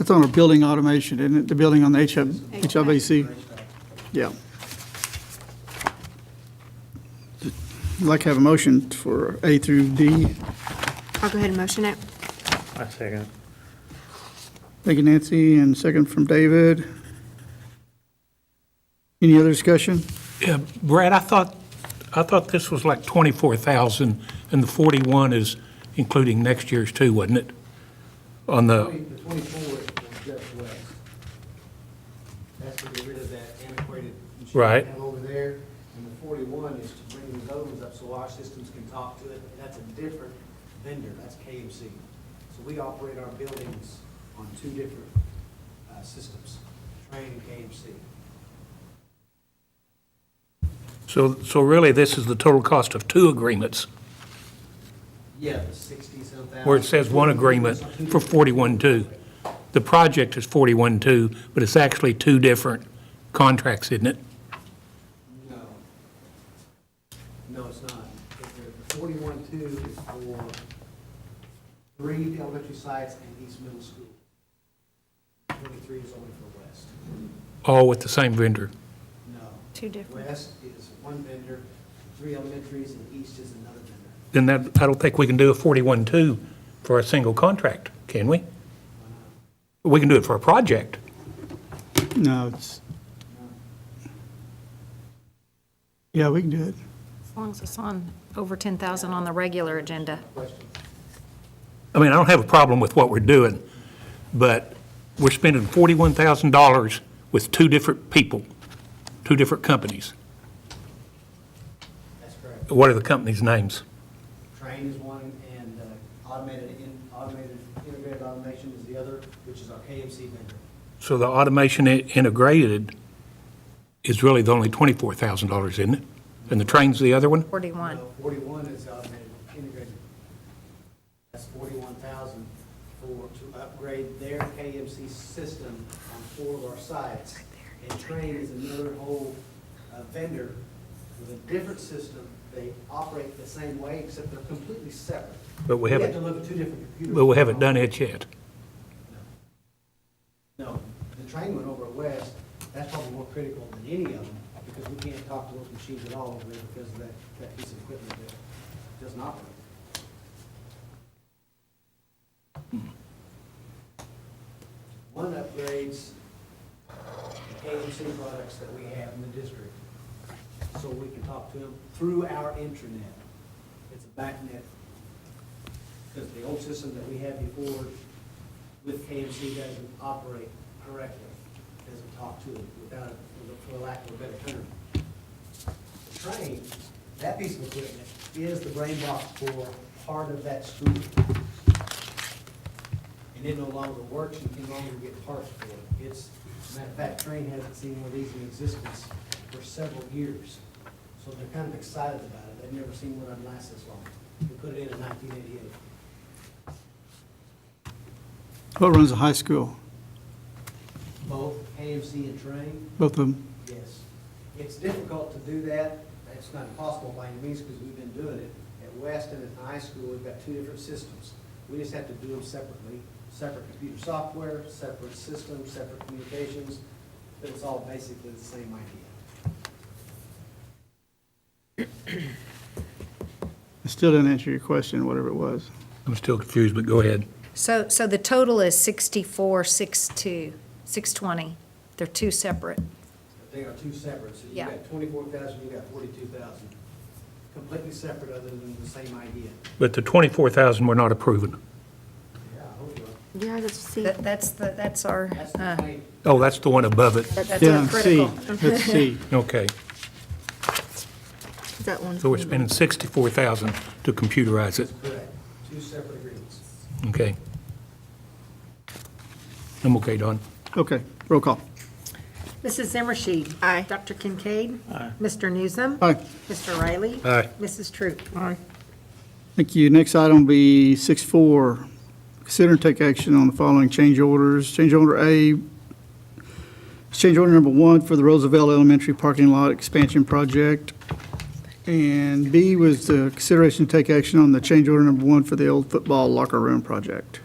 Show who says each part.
Speaker 1: It's on a building automation, isn't it? The building on the HF HVAC? Yeah. I'd like to have a motion for A through D.
Speaker 2: I'll go ahead and motion it.
Speaker 3: I second.
Speaker 1: Thank you, Nancy, and second from David. Any other discussion?
Speaker 4: Yeah, Brad, I thought, I thought this was like 24,000, and the 41 is including next year's too, wasn't it? On the,
Speaker 5: The twenty-four was just west. That's to get rid of that antiquated machine
Speaker 4: Right.
Speaker 5: down over there. And the forty-one is to bring these ovens up so our systems can talk to it. That's a different vendor, that's KMC. So we operate our buildings on two different, uh, systems, Train and KMC.
Speaker 4: so, so really, this is the total cost of two agreements,
Speaker 5: Yeah, the sixty-some thousand.
Speaker 4: where it says one agreement for 41.2. The project is 41.2, but it's actually two different contracts, isn't it?
Speaker 5: No. No, it's not. The forty-one-two is for three elementary sites and East Middle School. Twenty-three is only for West.
Speaker 4: All with the same vendor.
Speaker 5: No.
Speaker 2: Two different.
Speaker 5: West is one vendor, three elementaries, and East is another vendor.
Speaker 4: Then that, I don't think we can do a 41.2 for a single contract, can we? We can do it for a project.
Speaker 1: No, it's. Yeah, we can do it.
Speaker 6: As long as it's on over 10,000 on the regular agenda.
Speaker 5: Question?
Speaker 4: I mean, I don't have a problem with what we're doing, but we're spending $41,000 with two different people, two different companies.
Speaker 5: That's correct.
Speaker 4: What are the companies' names?
Speaker 5: Train is one, and uh, automated, in- automated, integrated automation is the other, which is our KMC vendor.
Speaker 4: So the automation i- integrated is really the only $24,000, isn't it? And the train's the other one?
Speaker 6: 41.
Speaker 5: No, Forty-one is automated, integrated. That's forty-one thousand for, to upgrade their KMC system on four of our sites. And Train is another whole uh, vendor with a different system. They operate the same way, except they're completely separate.
Speaker 4: But we
Speaker 5: have
Speaker 4: haven't-
Speaker 5: to look at two different computers.
Speaker 4: But we haven't done it yet.
Speaker 5: No, the Train went over west. That's probably more critical than any of them, because we can't talk to those machines at all over there because of that, that piece of equipment that doesn't operate. One upgrades the KMC products that we have in the district, so we can talk to them through our intranet. It's a backnet, because the old system that we had before with KMC doesn't operate correctly, doesn't talk to them without, for lack of a better term. The train, that piece of equipment is the brain box for part of that school and it no longer works, you can no longer get parts for it. It's, matter of fact, Train hasn't seen one of these in existence for several years. So they're kind of excited about it, they've never seen one that lasts this long. We put it in in nineteen eighty-eight.
Speaker 1: What runs the high school?
Speaker 5: Both AMC and Train,
Speaker 1: Both of them?
Speaker 5: yes. It's difficult to do that, it's not impossible by any means, because we've been doing it. At West and at High School, we've got two different systems. We just have to do them separately, separate computer software, separate systems, separate communications, but it's all basically the same idea.
Speaker 1: I still didn't answer your question, whatever it was.
Speaker 4: I'm still confused, but go ahead.
Speaker 6: So, so the total is 64, 62, 620. They're two separate.
Speaker 5: They are two separate, so you
Speaker 6: Yeah.
Speaker 5: got twenty-four thousand, you got forty-two thousand. Completely separate other than the same idea.
Speaker 4: But the 24,000 we're not approving.
Speaker 5: Yeah, I hope you are.
Speaker 2: Yeah, let's see.
Speaker 6: That- That's, the that's our,
Speaker 5: That's the
Speaker 6: uh,
Speaker 5: claim.
Speaker 4: Oh, that's the one above it.
Speaker 6: that- that's
Speaker 1: Yeah,
Speaker 6: our
Speaker 1: C.
Speaker 6: critical.
Speaker 1: That's C.
Speaker 4: Okay.
Speaker 2: That one.
Speaker 4: So we're spending 64,000 to computerize it.
Speaker 5: Correct, two separate agreements.
Speaker 4: Okay. I'm okay, Don.
Speaker 1: Okay, roll call.
Speaker 7: Mrs. Zimmershed.
Speaker 2: Aye.
Speaker 7: Dr. Kincaid. Mr. Newsom.
Speaker 1: Aye.
Speaker 7: Mr. Riley.
Speaker 4: Aye.
Speaker 7: Mrs. Troop.
Speaker 1: Thank you. Next item will be six four. Consider and take action on the following change orders. Change order A, change order number one for the Roosevelt Elementary Parking Lot Expansion Project. And B was the consideration to take action on the change order number one for the old football locker room project.